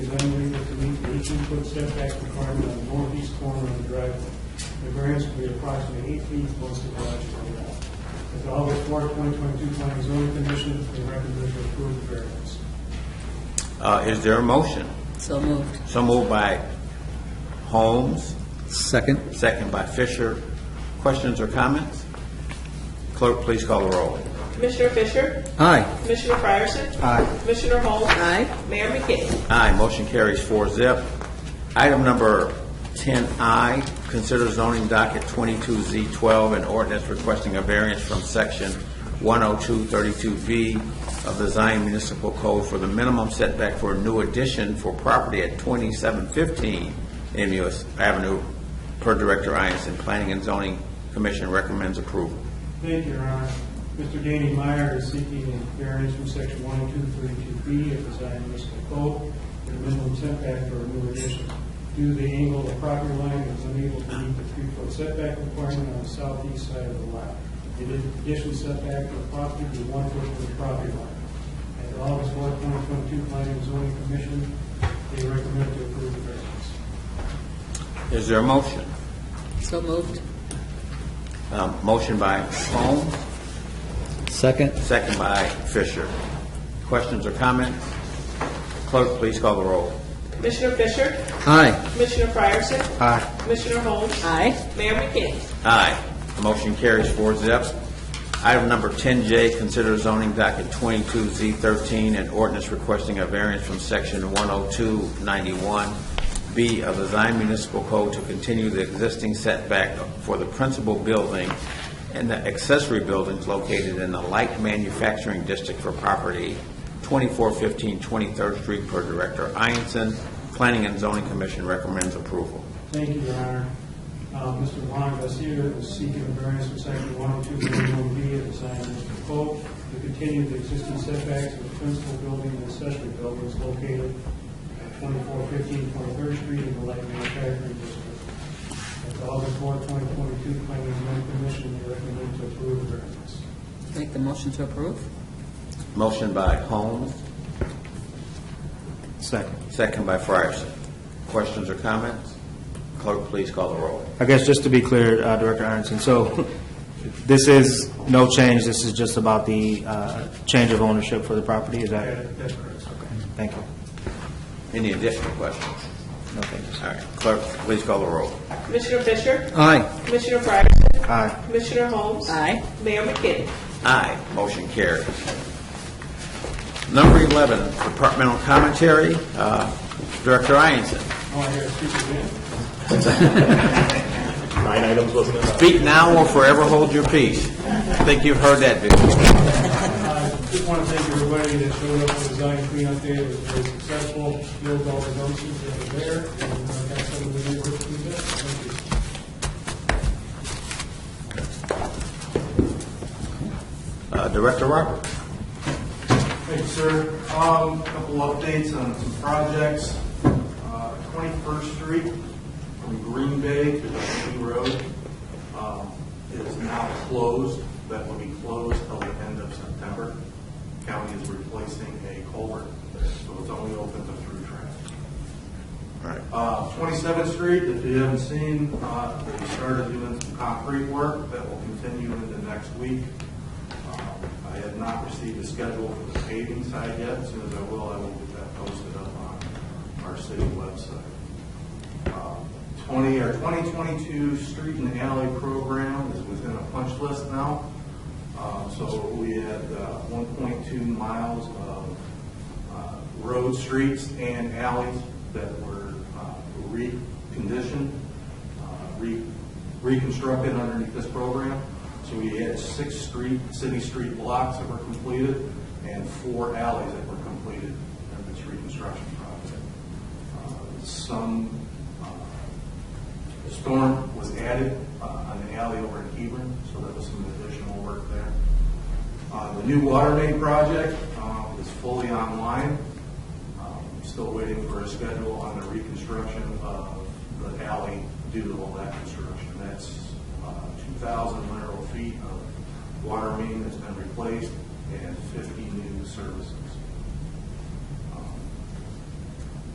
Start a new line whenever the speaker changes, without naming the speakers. unable to meet the eighteen-foot setback requirement on the northeast corner of the driveway. The variance will be approximately eight feet once the garage is laid out. As the August fourth, twenty twenty-two planning zoning commission, they recommend to approve the variance.
Uh, Is there a motion?
So moved.
So moved by Holmes,
Second?
second by Fisher. Questions or comments? Clerk, please call the roll.
Commissioner Fisher?
Aye.
Commissioner Fryerson?
Aye.
Commissioner Holmes?
Aye.
Mayor McKinney?
Aye, motion carries four zip. Item number 10I, consider zoning docket 22Z12 and ordinance requesting a variance from section 10232V of the Zion Municipal Code for the minimum setback for a new addition for property at 2715 MUS Avenue per Director Ianson. Planning and Zoning Commission recommends approval.
Thank you, Your Honor. Mr. Danny Meyer is seeking a variance from section one two three two B of the Zion Municipal Code for the minimum setback for a new addition. Due to the angle of the property line, it is unable to meet the three-foot setback requirement on the southeast side of the lot. The addition setback for the property is one foot from the property line. At the August fourth, twenty twenty-two, Planning and Zoning Commission, they recommend to approve the variance.
Is there a motion?
So moved.
Um, Motion by Holmes,
Second?
Second by Fisher. Questions or comments? Clerk, please call the roll.
Commissioner Fisher?
Aye.
Commissioner Fryerson?
Aye.
Commissioner Holmes?
Aye.
Mayor McKinney?
Aye. Motion carries four zip. Item number 10J, consider zoning docket 22Z13 and ordinance requesting a variance from section 10291B of the Zion Municipal Code to continue the existing setback for the principal building and the accessory buildings located in the light manufacturing district for property 2415 23rd Street per Director Ianson. Planning and Zoning Commission recommends approval.
Thank you, Your Honor. Uh, Mr. Juan Garcia is seeking a variance from section 102.1B of the Zion Municipal Code to continue the existing setbacks of the principal building and accessory buildings located at 2415 23rd Street in the Light Manufacturing District. At the August 4, 2022 Planning and Zoning Commission, they recommend to approve the variance.
Make the motion to approve?
Motion by Holmes. Second. Second by Fryerson. Questions or comments? Clerk, please call the roll.
I guess just to be clear, uh, Director Aronson, so this is no change, this is just about the uh, change of ownership for the property, is
That-
that?
That's correct.
Thank you.
Any additional questions?
No, thank you.
All right, clerk, please call the roll.
Commissioner Fisher?
Aye.
Commissioner Fryerson?
Aye.
Commissioner Holmes?
Aye.
Mayor McKinney?
Aye, motion carries. Number 11, departmental commentary, Uh, Director Ianson.
Now Oh, I hear a speaker again.
Nine items wasn't enough.
Speak now or forever hold your peace. I think you've heard that before.
I just want to thank everybody that showed up for the Zion cleanup day. It was very successful, filled all the dumpsters that were there, and uh, got some of the new work to do. Thank you.
Uh, Director Roberts.
Thank you, sir. Um, a couple updates on some projects. Uh, 21st Street from Green Bay to the New Road, um, is now closed. That will be closed till the end of September. County is replacing a culvert there, so it's only open to through traffic.
All right,
Uh, 27th Street, if you haven't seen, uh, they started doing some concrete work that will continue into next week. Um, I have not received a schedule for the paving side yet. As soon as I will, I will get that posted up on our city website. Um, 20, our 2022 Street and Alley Program is within a punch list now. Uh, So we had uh, 1.2 miles of uh, road, streets, and alleys that were uh, reconditioned, uh, re- reconstructed underneath this program. So we had six street, city street blocks that were completed and four alleys that were completed in this reconstruction project. Uh, Some uh, storm was added uh, on the alley over in Hebron, so that was some additional work there. Uh, The new water main project uh, is fully online. Um, Still waiting for a schedule on the reconstruction of the alley due to all that construction. That's uh, 2,000 mineral feet of water main that's been replaced and 50 new services.